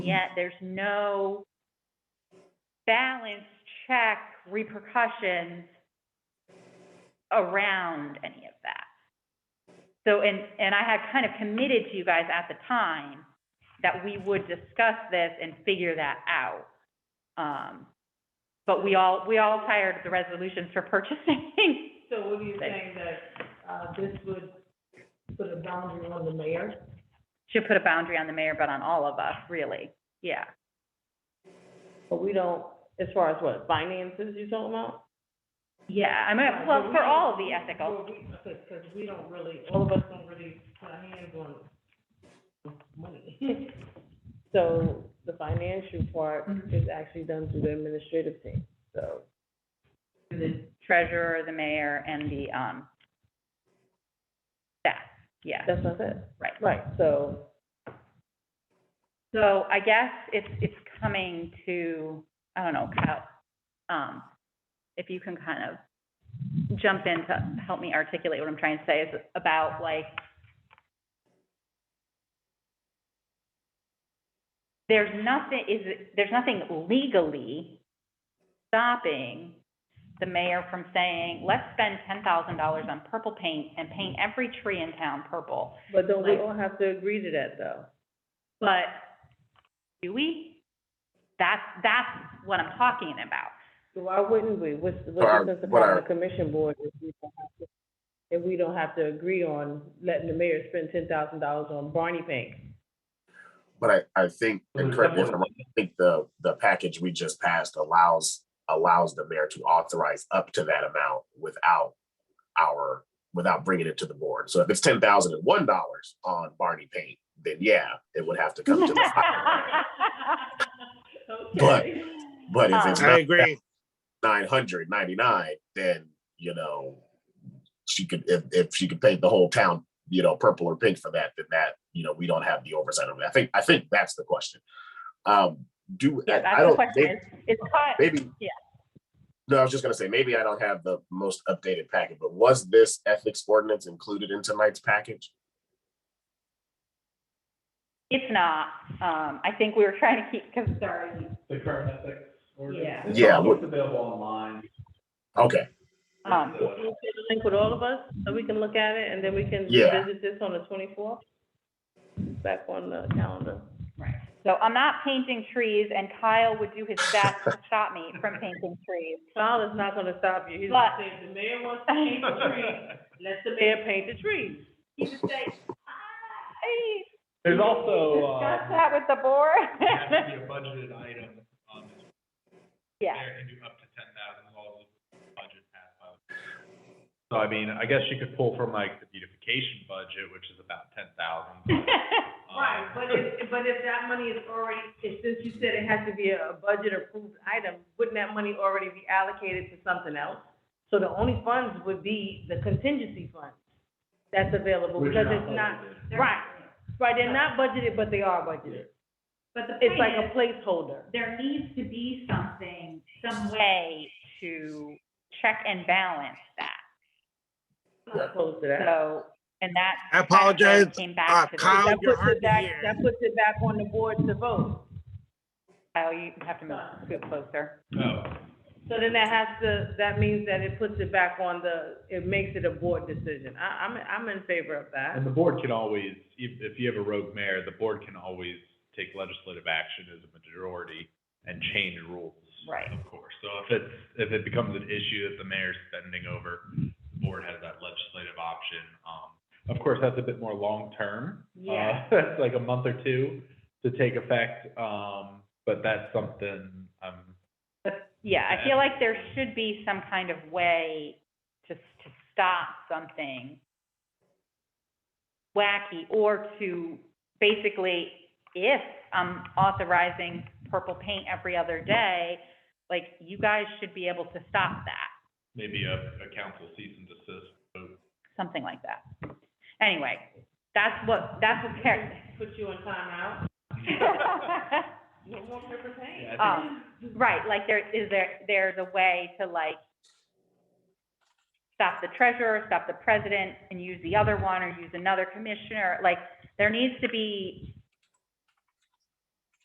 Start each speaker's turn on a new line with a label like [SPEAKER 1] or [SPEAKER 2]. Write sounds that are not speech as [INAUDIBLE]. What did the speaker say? [SPEAKER 1] yet there's no balance check repercussions around any of that. So, and, and I had kind of committed to you guys at the time that we would discuss this and figure that out. Um, but we all, we all tired of the resolutions for purchasing. [LAUGHS]
[SPEAKER 2] So what are you
[SPEAKER 1] Thanks.
[SPEAKER 2] saying, that, uh, this would put a boundary on the mayor?
[SPEAKER 1] Should put a boundary on the mayor, but on all of us, really. Yeah.
[SPEAKER 3] But we don't, as far as what, finances you talking about?
[SPEAKER 1] Yeah, I mean, Uh, well, for all of the ethical,
[SPEAKER 2] Because we don't really, all of us don't really put our hands on money.
[SPEAKER 3] [LAUGHS] So the financial part is actually done through the administrative team, so.
[SPEAKER 2] The
[SPEAKER 1] treasurer, the mayor, and the, um, staff. Yeah,
[SPEAKER 3] That's what I said.
[SPEAKER 1] right.
[SPEAKER 3] Right, so,
[SPEAKER 1] So I guess it's, it's coming to, I don't know, Kyle, um, if you can kind of jump in to help me articulate what I'm trying to say is about like, there's nothing, is, it- there's nothing legally stopping the mayor from saying, let's spend ten thousand dollars on purple paint and paint every tree in town purple.
[SPEAKER 3] but don't we
[SPEAKER 1] Like-
[SPEAKER 3] all have to agree to that, though?
[SPEAKER 1] But do we? That's, that's what I'm talking
[SPEAKER 4] [LAUGHS]
[SPEAKER 1] about.
[SPEAKER 3] So Why wouldn't we? What's, what's
[SPEAKER 4] But our-
[SPEAKER 3] the sense of
[SPEAKER 4] but our-
[SPEAKER 3] having a commission board if we don't have to, if we don't have to agree on letting the mayor spend ten thousand dollars on Barney paint?
[SPEAKER 4] But I, I think,
[SPEAKER 1] Mm-hmm.
[SPEAKER 4] and correct me if I'm wrong, I think the, the package we just passed allows, allows the mayor to authorize up to that amount without our, without bringing it to the board. So if it's ten thousand and one dollars on Barney paint, then yeah, it would have to come
[SPEAKER 1] [LAUGHS]
[SPEAKER 4] to the, But-
[SPEAKER 2] Okay.
[SPEAKER 4] but if it's
[SPEAKER 5] I agree.
[SPEAKER 4] nine hundred ninety-nine, then, you know, she could, if, if she could paint the whole town, you know, purple or pink for that, then that, you know, we don't have the oversight of it. I think, I think that's the question. Um, do,
[SPEAKER 1] Yeah,
[SPEAKER 4] I I
[SPEAKER 1] that's the
[SPEAKER 4] don't,
[SPEAKER 1] question
[SPEAKER 4] maybe-
[SPEAKER 1] is, is Kyle,
[SPEAKER 4] maybe.
[SPEAKER 1] Yeah.
[SPEAKER 4] No, I was just gonna say, maybe I don't have the most updated packet, but was this ethics ordinance included in tonight's package?
[SPEAKER 1] if not, um, I think we were trying to keep, because
[SPEAKER 2] Sorry.
[SPEAKER 6] The current ethics ordinance?
[SPEAKER 2] Yeah.
[SPEAKER 6] It's
[SPEAKER 4] Yeah,
[SPEAKER 6] all-
[SPEAKER 4] what-
[SPEAKER 6] It's available online.
[SPEAKER 4] Okay,
[SPEAKER 1] Um,
[SPEAKER 6] So-
[SPEAKER 3] Can you share the link with all of us, so we can look at it, and then we can
[SPEAKER 4] Yeah.
[SPEAKER 3] revisit this on the twenty-fourth? Back on the calendar.
[SPEAKER 1] so I'm not painting trees and Kyle would do his best
[SPEAKER 4] [LAUGHS]
[SPEAKER 1] to stop me from painting trees.
[SPEAKER 3] Kyle is not gonna stop you, he's
[SPEAKER 1] But-
[SPEAKER 3] gonna say, if the mayor wants to paint
[SPEAKER 1] [LAUGHS]
[SPEAKER 3] the tree, let the mayor paint the tree.
[SPEAKER 1] He would say, "Ah, "Hey,
[SPEAKER 6] [LAUGHS] There's also,
[SPEAKER 1] discuss
[SPEAKER 6] uh,
[SPEAKER 1] that with the
[SPEAKER 6] has to
[SPEAKER 1] board. [LAUGHS]
[SPEAKER 6] be a budgeted item, um,
[SPEAKER 1] Yeah, [LAUGHS]
[SPEAKER 6] mayor can do up to ten thousand dollars of budget passed by. the- So I mean, I guess you could pull from like the beautification budget, which is about ten thousand.
[SPEAKER 2] [LAUGHS] Right,
[SPEAKER 3] Uh,
[SPEAKER 2] but if, but if that money is already,
[SPEAKER 3] If, since you said it has to be a budget approved item, wouldn't that money already be allocated to something else? So the only funds would be the contingency funds that's available, because it's not, right, right, they're not budgeted, but they are budgeted.
[SPEAKER 1] but the
[SPEAKER 3] It's like a placeholder.
[SPEAKER 1] there needs to be something, some way to check and balance that.
[SPEAKER 3] Close to that.
[SPEAKER 1] So, and that.
[SPEAKER 5] I apologize.
[SPEAKER 1] Came
[SPEAKER 5] Uh,
[SPEAKER 1] back to. the-
[SPEAKER 5] Kyle,
[SPEAKER 3] That
[SPEAKER 5] you're
[SPEAKER 3] puts
[SPEAKER 5] hard
[SPEAKER 3] it
[SPEAKER 5] to
[SPEAKER 3] back,
[SPEAKER 5] hear.
[SPEAKER 3] that puts it back on the board to vote.
[SPEAKER 1] Kyle, you have to move scoot closer.
[SPEAKER 6] No,
[SPEAKER 3] So then that has to, that means that it puts it back on the, it makes it a board decision. I, I'm, I'm in favor of that.
[SPEAKER 6] and the board can always, if, if you have a rogue mayor, the board can always take legislative action as a majority and change rules.
[SPEAKER 1] Right.
[SPEAKER 6] Of course. So if it's, if it becomes an issue that the mayor's spending over, the board has that legislative option. Um, of course, that's a bit more long-term. [LAUGHS]
[SPEAKER 1] Yeah.
[SPEAKER 6] Uh, It's like a month or two to take effect, um, but that's something, um,
[SPEAKER 1] Yeah, I feel like there should be some kind of way to, to stop something wacky or to basically, if I'm authorizing purple paint every other day, like you guys should be able to stop that.
[SPEAKER 6] maybe a, a council cease and desist vote.
[SPEAKER 1] something like that. Anyway, that's what, that's what Karen.
[SPEAKER 3] Put you on timeout. No more paper paint.
[SPEAKER 6] [LAUGHS] Yeah, I think
[SPEAKER 1] [LAUGHS] Um, Right, like there, is there, there's a way to like stop the treasurer, stop the president, and use the other one, or use another commissioner, like, there needs to be